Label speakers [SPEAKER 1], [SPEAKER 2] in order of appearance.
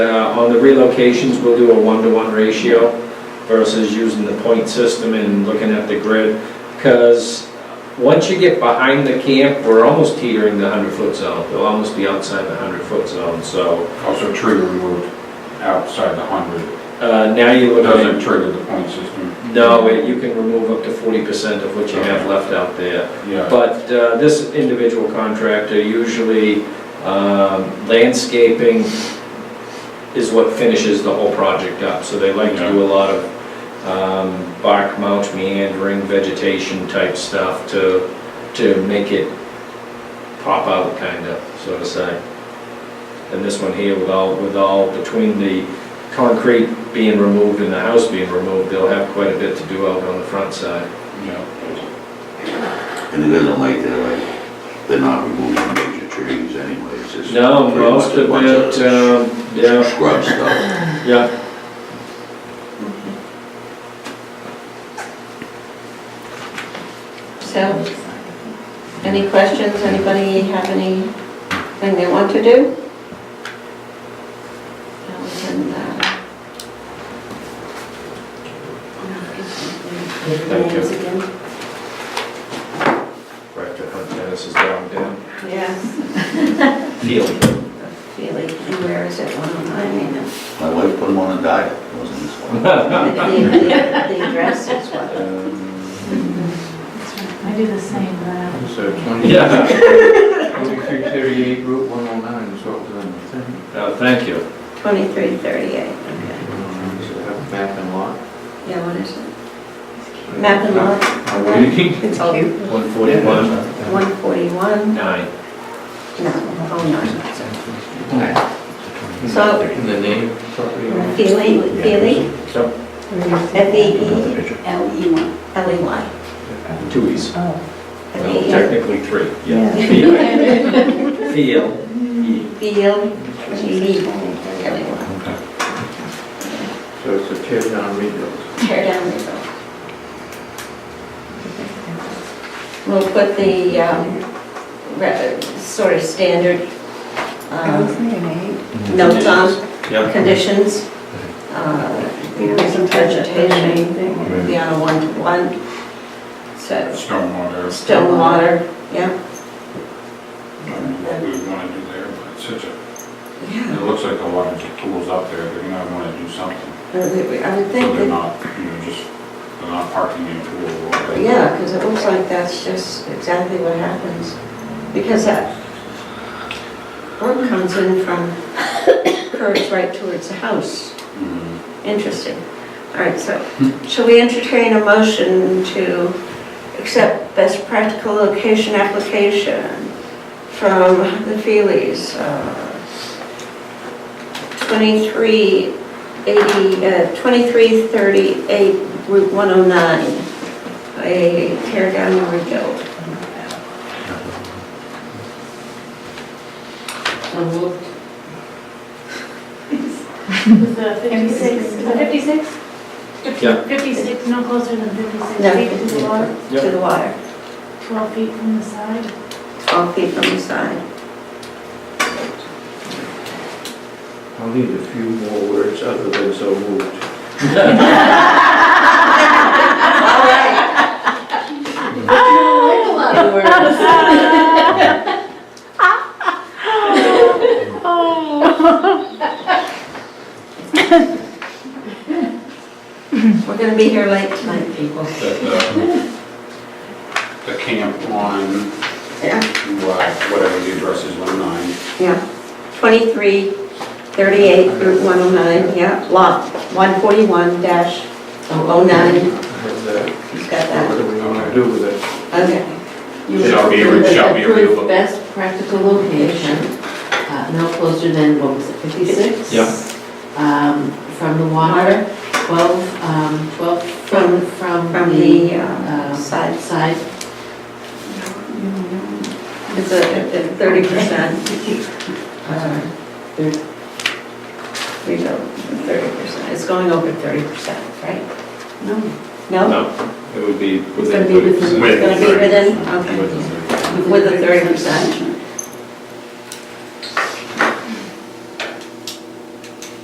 [SPEAKER 1] uh, On the relocations, we'll do a one-to-one ratio versus using the point system and looking at the grid. Because once you get behind the camp, we're almost teetering the 100-foot zone. We'll almost be outside the 100-foot zone, so
[SPEAKER 2] Also trigger removed outside the hundred,
[SPEAKER 1] uh, now you're
[SPEAKER 2] it
[SPEAKER 1] looking at
[SPEAKER 2] doesn't trigger the point system.
[SPEAKER 1] No, it- you can remove up to forty percent of what you have left out there.
[SPEAKER 2] Yeah,
[SPEAKER 1] But uh, this individual contractor, usually um, landscaping is what finishes the whole project up. So they like to do a lot of um, bark mulch, meandering, vegetation type stuff to, to make it pop out, kind of, so to say. And this one here with all, with all, between the concrete being removed and the house being removed, they'll have quite a bit to do out on the front side.
[SPEAKER 2] yeah.
[SPEAKER 3] And it isn't like they're like, they're not removing major trees anyway, it's just.
[SPEAKER 1] No,
[SPEAKER 3] pretty much
[SPEAKER 1] most
[SPEAKER 3] a
[SPEAKER 1] of
[SPEAKER 3] bunch
[SPEAKER 1] it, um, yeah,
[SPEAKER 3] Scrub stuff.
[SPEAKER 1] yeah.
[SPEAKER 4] So, any questions, anybody have anything they want to do? Now we can, uh,
[SPEAKER 1] Thank you. Director Hunt Dennis is down, down.
[SPEAKER 4] Yes.
[SPEAKER 1] Field.
[SPEAKER 4] Feely, and where is it, one oh nine,
[SPEAKER 3] My wife put them on a diet, it wasn't this one.
[SPEAKER 4] I mean, the, the the address is what?
[SPEAKER 5] I do the same, but I
[SPEAKER 2] Um, So
[SPEAKER 1] Yeah,
[SPEAKER 2] twenty-three thirty-eight Route one oh nine is what we're on the thing.
[SPEAKER 1] no, Uh, thank you.
[SPEAKER 4] Twenty-three thirty-eight, okay.
[SPEAKER 2] Map and lot.
[SPEAKER 4] Yeah, what is it? Map and lot, oh, it's cute,
[SPEAKER 1] One forty-one,
[SPEAKER 4] one forty-one,
[SPEAKER 1] nine.
[SPEAKER 4] no, oh, no. So, E
[SPEAKER 2] And the name? property.
[SPEAKER 4] Feely, Feely,
[SPEAKER 1] Yep,
[SPEAKER 4] F E E L E Y, L E Y.
[SPEAKER 1] Two E's. Well,
[SPEAKER 4] B
[SPEAKER 1] technically three, yeah. Field. Field. E.
[SPEAKER 4] L G E.
[SPEAKER 2] So it's a tear down rebuild.
[SPEAKER 4] Tear down the roof. We'll put the, um, re- sort of standard, um, notes on
[SPEAKER 1] Yep,
[SPEAKER 4] conditions. uh, Increase in vegetation, be on a one-to-one. So,
[SPEAKER 2] Stormwater.
[SPEAKER 4] stormwater, yeah.
[SPEAKER 2] I don't know What we wanna do there, but it's such a,
[SPEAKER 4] Yeah.
[SPEAKER 2] it looks like a lot of tools up there, they're gonna wanna do something.
[SPEAKER 4] I would
[SPEAKER 2] So
[SPEAKER 4] think
[SPEAKER 2] they're
[SPEAKER 4] that
[SPEAKER 2] not, you know, just, they're not parking in a pool or whatever.
[SPEAKER 4] Yeah, because it looks like that's just exactly what happens. Because that road comes in from, curves right towards the house.
[SPEAKER 2] Mhm.
[SPEAKER 4] Interesting. All right, so shall we entertain a motion to accept best practical location application from the Feelys? uh, 2380, uh, 2338 Route 109, a tear down and rebuild.
[SPEAKER 5] Fifty-six, is it fifty-six?
[SPEAKER 1] Yeah.
[SPEAKER 5] Fifty-six, no closer than
[SPEAKER 4] No.
[SPEAKER 5] fifty-six feet to the water,
[SPEAKER 4] To the water,
[SPEAKER 5] twelve feet from the side.
[SPEAKER 4] 12 feet from the side.
[SPEAKER 6] I'll need a few more words other than so moved.
[SPEAKER 4] All right. We're going to be here late tonight, people.
[SPEAKER 2] The uh, the camp on,
[SPEAKER 4] Yeah,
[SPEAKER 2] uh, whatever the address is, one oh nine.
[SPEAKER 4] yeah. 2338 Route 109, yeah, lot 141-009. dash oh He's
[SPEAKER 6] And uh, what
[SPEAKER 4] got that,
[SPEAKER 6] do we want to do with it?
[SPEAKER 4] okay.
[SPEAKER 2] Shall be re- shall be reviewable.
[SPEAKER 7] Approved best practical location, uh, no closer than, what was it, 56?
[SPEAKER 1] Yep.
[SPEAKER 7] Um, From the water, 12, um, 12 from, from
[SPEAKER 4] From
[SPEAKER 7] the
[SPEAKER 4] the uh,
[SPEAKER 7] uh,
[SPEAKER 4] side,
[SPEAKER 7] side.
[SPEAKER 4] it's a thirty percent. We go thirty percent, it's going over thirty percent, right?
[SPEAKER 7] No,
[SPEAKER 4] No?
[SPEAKER 1] no, it would be
[SPEAKER 7] It's gonna
[SPEAKER 1] within
[SPEAKER 7] be
[SPEAKER 1] thirty
[SPEAKER 7] within-
[SPEAKER 1] percent.
[SPEAKER 4] It's gonna be within, okay.
[SPEAKER 1] Within 30.
[SPEAKER 4] With the thirty percent.